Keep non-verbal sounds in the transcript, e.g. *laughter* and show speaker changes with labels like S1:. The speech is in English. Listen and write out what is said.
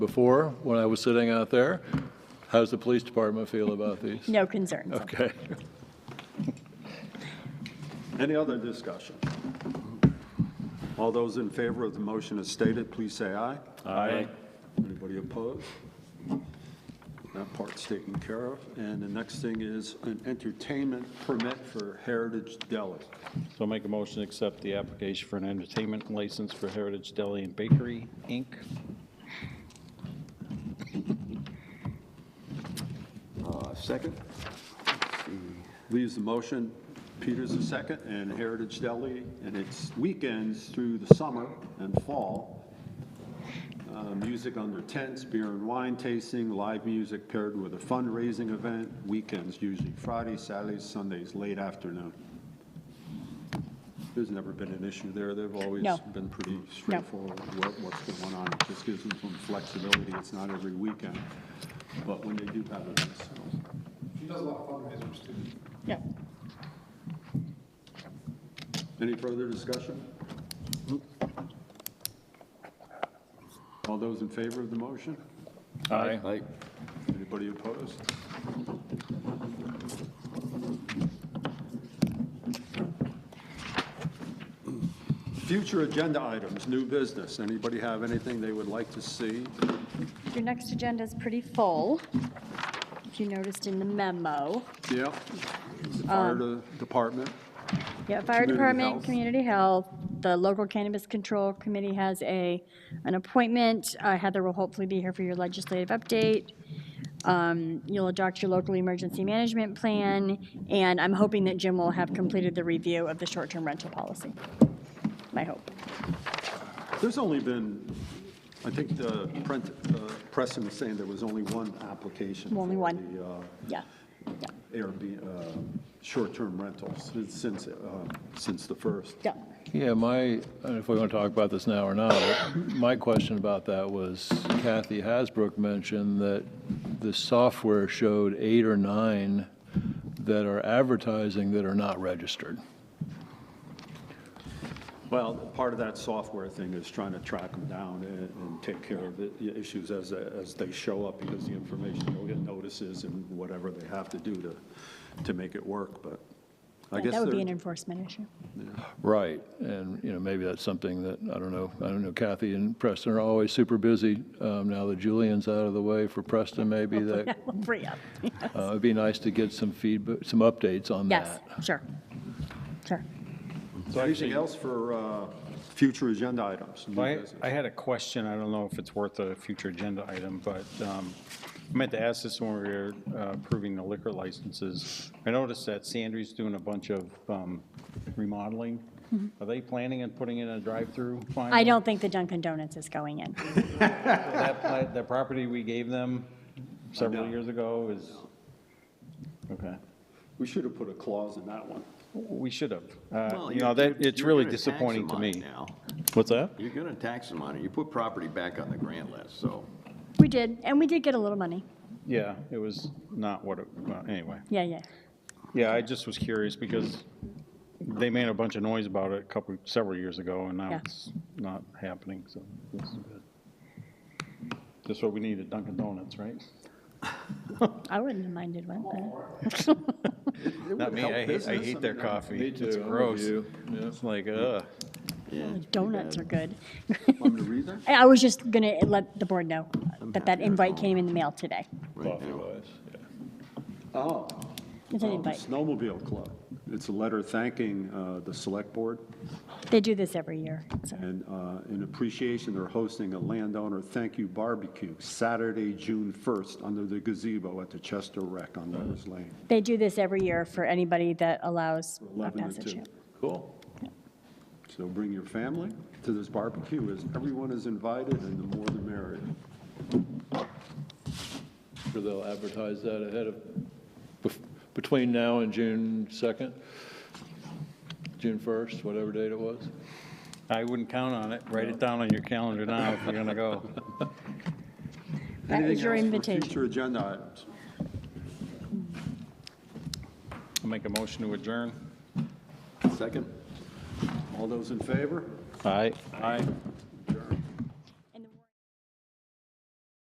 S1: before when I was sitting out there. How's the police department feel about these?
S2: No concerns.
S1: Okay.
S3: Any other discussion? All those in favor of the motion as stated, please say aye. Aye. Anybody opposed? That part's taken care of. And the next thing is an entertainment permit for Heritage Deli.
S4: So I'll make a motion to accept the application for an entertainment license for Heritage Deli and Bakery, Inc.
S3: Uh, Second? Leaves the motion, Peters the second, and Heritage Deli, and it's weekends through the summer and fall. Uh, Music under tents, beer and wine tasting, live music paired with a fundraising event, weekends usually Fridays, Saturdays, Sundays, late afternoon. There's never been an issue there, they've always
S2: No.
S3: been pretty straightforward, what- what's going on, it just gives them some flexibility, it's not every weekend, but when they do have events, so.
S5: She does a lot of fundraisers too.
S2: Yeah.
S3: Any further discussion? All those in favor of the motion?
S4: Aye.
S3: Anybody opposed? Future agenda items, new business. Anybody have anything they would like to see?
S2: Your next agenda is pretty full, if you noticed in the memo.
S3: Yeah.
S2: Um,
S3: Fire de- department.
S2: Yeah, Fire
S3: Community
S2: Department,
S3: Health.
S2: Community Health, the Local Cannabis Control Committee has a, an appointment. Uh, Heather will hopefully be here for your legislative update. Um, You'll adopt your local emergency management plan, and I'm hoping that Jim will have completed the review of the short-term rental policy. My hope.
S3: There's only been, I think the print, uh, Preston was saying there was only one application.
S2: Only
S3: for
S2: one.
S3: the, uh,
S2: Yeah, yeah,
S3: Airbnb, uh, short-term rentals since, uh, since the first.
S2: yeah.
S1: Yeah, my, I don't know if we want to talk about this now or not, but my question about that was Kathy Hasbrook mentioned that the software showed eight or nine that are advertising that are not registered.
S3: Well, part of that software thing is trying to track them down and, and take care of the issues as, as they show up because the information, you'll get notices and whatever they have to do to, to make it work, but I guess
S2: That would be
S3: they're-
S2: an enforcement issue.
S1: Right, and, you know, maybe that's something that, I don't know, I don't know, Kathy and Preston are always super busy. Um, Now that Julian's out of the way for Preston,
S2: *laughs*
S1: maybe that,
S2: We'll Free up.
S1: uh, it'd be nice to get some feedback, some updates on
S2: Yes,
S1: that.
S2: sure, sure.
S3: Anything else for, uh, future agenda items? new
S4: I,
S3: business?
S4: I had a question, I don't know if it's worth a future agenda item, but um, I meant to ask this when we were uh, approving the liquor licenses. I noticed that Sandry's doing a bunch of um, remodeling. Are they planning on putting in a drive-through finally?
S2: Mm-hmm. I don't think the Dunkin' Donuts is going in.
S4: That, pla- that property we gave them several
S3: No.
S4: years ago is, okay.
S3: We should have put a clause in that one.
S4: We should have. Uh,
S6: Well,
S4: You
S6: you're-
S4: know, that,
S6: you're-
S4: it's
S6: you're
S4: really
S6: gonna tax 'em
S4: disappointing to
S6: on it
S4: me.
S6: now.
S4: What's that?
S6: You're going to tax them on it. You put property back on the grant list, so.
S2: We did, and we did get a little money.
S4: Yeah, it was not what it, well, anyway.
S2: Yeah, yeah.
S4: Yeah, I just was curious because they made a bunch of noise about it a couple, several years ago and now
S2: Yeah.
S4: it's not happening, so this is good. That's what we need at Dunkin' Donuts, right?
S2: I wouldn't have minded one, but
S4: Not me, I hate, I hate their coffee. It's gross. It's like, ugh.
S2: the donuts are good.
S3: Want me to read that?
S2: *laughs* I I was just gonna let the board know that that invite came in the mail today.
S3: Oh.
S2: It's an
S3: Oh, the
S2: invite.
S3: Snowmobile Club. It's a letter thanking uh, the Select Board
S2: They do this every year, so.
S3: and uh, in appreciation, they're hosting a landowner thank you barbecue Saturday, June 1st, under the gazebo at the Chester Rec on Lover's Lane.
S2: They do this every year for anybody that allows a
S3: 11 to
S2: passage.
S3: 2. Cool. So bring your family to this barbecue, as everyone is invited, and the more the merrier.
S1: Sure they'll advertise that ahead of, bef- between now and June 2nd, June 1st, whatever date it was.
S4: I wouldn't count on it. Write it down on your calendar now if you're gonna go.
S2: That is your
S3: Anything else for
S2: invitation.
S3: future agenda items?
S4: I'll Make a motion to adjourn.
S6: Second?
S3: All those in favor?
S4: Aye. Aye.